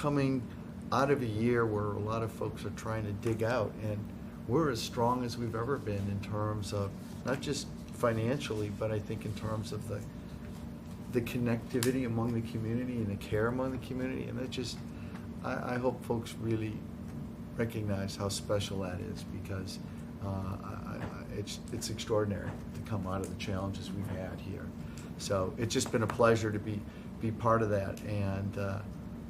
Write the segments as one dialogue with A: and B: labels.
A: coming out of a year where a lot of folks are trying to dig out, and we're as strong as we've ever been in terms of, not just financially, but I think in terms of the, the connectivity among the community and the care among the community, and that just, I, I hope folks really recognize how special that is, because uh, I, I, it's, it's extraordinary to come out of the challenges we've had here. So it's just been a pleasure to be, be part of that, and, uh,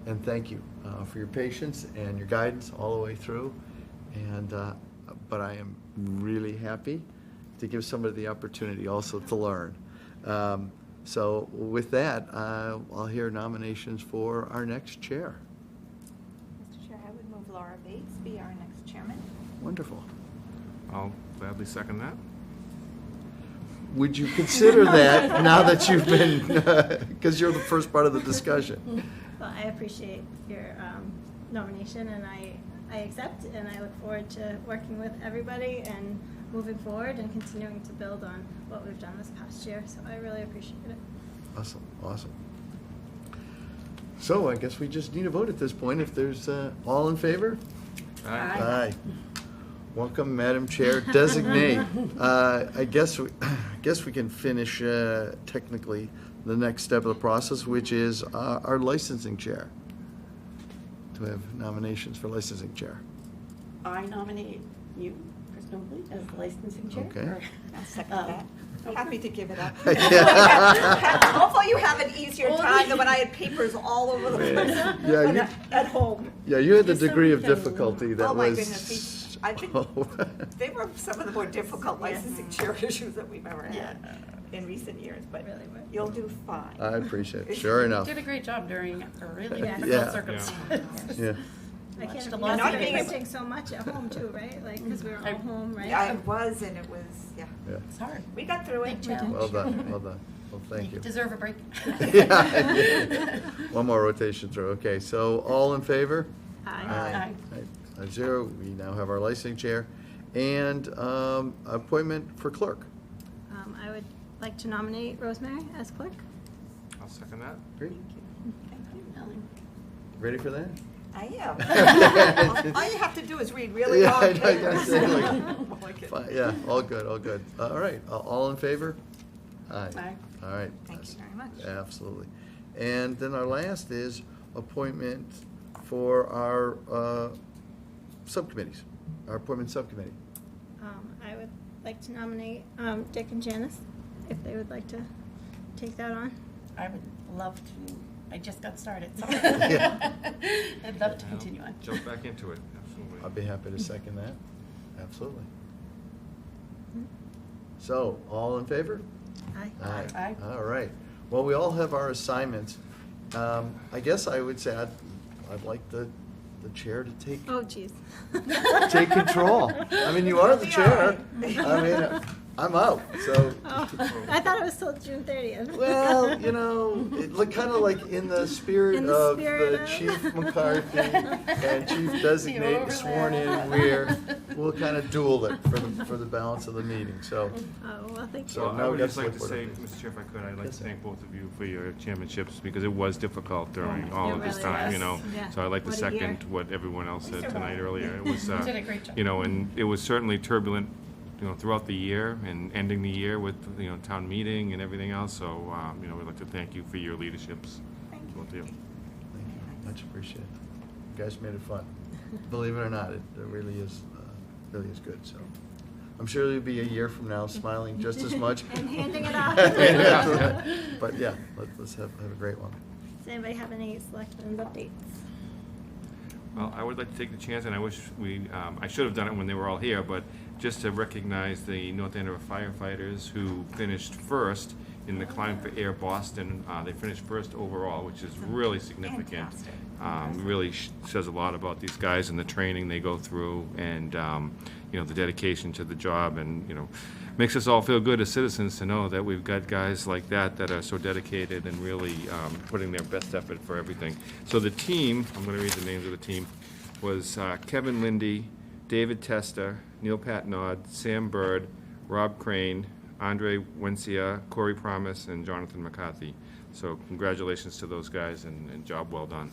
A: and thank you uh, for your patience and your guidance all the way through. And, uh, but I am really happy to give somebody the opportunity also to learn. Um, So with that, uh, I'll hear nominations for our next chair.
B: Mr. Chair, I would move Laura Bates be our next chairman.
A: Wonderful.
C: I'll gladly second that.
A: Would you consider that now that you've been, because you're the first part of the discussion?
D: Well, I appreciate your um, nomination, and I, I accept, and I look forward to working with everybody and moving forward and continuing to build on what we've done this past year, so I really appreciate it.
A: Awesome, awesome. So I guess we just need a vote at this point. If there's, uh, all in favor?
C: Aye.
A: Aye. Welcome, Madam Chair Designate. Uh, I guess, we- I guess we can finish uh, technically the next step of the process, which is uh, our licensing chair. Do we have nominations for licensing chair?
E: I nominate you, Chris Nobley, as the licensing chair.
A: Okay.
E: or-
B: I'll second
E: Um,
B: that.
E: okay.
B: Happy to give it up.
A: Yeah.
B: Hopefully you have an easier time than when I had papers all over the place.
A: Yeah,
E: When
A: you-
E: I- At home.
A: Yeah, you had the
E: Just so
A: degree
E: we
A: of
E: can-
A: difficulty that was.
B: Oh, my goodness, we- I think-
A: Oh.
B: They were some of the more difficult licensing chair issues that we've ever had in recent years, but
D: Really were.
B: you'll do fine.
A: I appreciate it, sure enough.
E: Did a great job during a really
D: Yeah.
A: Yeah.
E: difficult circumstance.
A: Yeah,
D: I can't,
E: the
D: you
E: lot
D: guys
B: of
D: have
B: being
D: been
B: able-
D: missing so much at home too, right? Like, because we were all home, right?
B: Yeah, it was, and it was, yeah,
A: yeah.
E: It's hard.
B: we got through it.
E: Big challenge.
A: Well done, well done. Well, thank you.
E: Deserve a break.
A: Yeah, yeah. One more rotation through, okay, so all in favor?
D: Aye.
A: Aye.
E: Aye.
A: Aye. Five zero, we now have our licensing chair, and um, appointment for clerk.
D: Um, I would like to nominate Rosemary as clerk.
C: I'll second that.
A: Great,
B: Thank you.
A: ready for that?
B: I am. All you have to do is read really
A: Yeah,
B: long
A: I know,
B: papers.
A: exactly.
B: I like it.
A: Fi- Yeah, all good, all good. Uh, All right, a- all in favor? Aye.
E: Aye.
A: All right.
B: Thank you very much.
A: Absolutely. And then our last is appointment for our uh, subcommittees, our appointment subcommittee.
D: Um, I would like to nominate um, Dick and Janice, if they would like to take that on.
E: I would love to, I just got started, so
A: Yeah.
E: I'd love to
C: I'll
E: continue on.
C: Jump back into it,
A: I'd
C: absolutely.
A: be happy to second that. Absolutely. So, all in favor?
D: Aye.
A: Aye.
E: Aye.
A: All right. Well, we all have our assignments. Um, I guess I would say I'd, I'd like the, the chair to take,
D: Oh, geez.
A: take control. I mean, you are the
B: Yeah.
A: chair. I mean, I'm out, so.
D: Oh, I thought it was till June thirtieth.
A: Well, you know, it look kind of like in the spirit
D: In the
A: of
D: spirit
A: the
D: of-
A: Chief McCarthy and Chief
E: The
A: Designate sworn in,
E: overlap.
A: where we'll kind of duel it for the, for the balance of the meeting, so.
D: Oh, well, thank you.
A: So
C: So I
A: now we
C: would
A: got
C: just like to say,
A: select board.
C: Mr. Chair, if I could, I'd like
A: Yes,
C: to
A: sir.
C: thank both of you for your chairmanships, because it was difficult during all
D: It
C: of this
D: really
C: time, you
D: was.
C: know?
D: Yeah.
C: So I'd like to
D: What a year.
C: second what everyone else said
B: survived.
C: tonight earlier. It was,
E: did
C: uh,
E: a great job.
C: you know, and it was certainly turbulent, you know, throughout the year, and ending the year with, you know, town meeting and everything else, so, um, you know, we'd like to thank you for your leaderships,
B: Thank you.
C: both of you.
A: Thank you. Much appreciated. You guys made it fun. Believe it or not, it it really is, uh, really is good, so. I'm sure you'll be a year from now smiling just as much.
D: And handing it off.
A: But yeah, let- let's have, have a great one.
D: Does anybody have any selections updates?
C: Well, I would like to take the chance, and I wish we, um, I should have done it when they were all here, but just to recognize the North Andover firefighters who finished first in the climb for air Boston. Uh, They finished first overall, which is really significant.
B: Fantastic.
C: Um, Really sh- says a lot about these guys and the training they go through and, um, you know, the dedication to the job and, you know, makes us all feel good as citizens to know that we've got guys like that that are so dedicated and really um, putting their best effort for everything. So the team, I'm going to read the names of the team, was uh, Kevin Lindy, David Testa, Neil Patnod, Sam Bird, Rob Crane, Andre Wencia, Corey Promise, and Jonathan McCarthy. So congratulations to those guys and and job well done.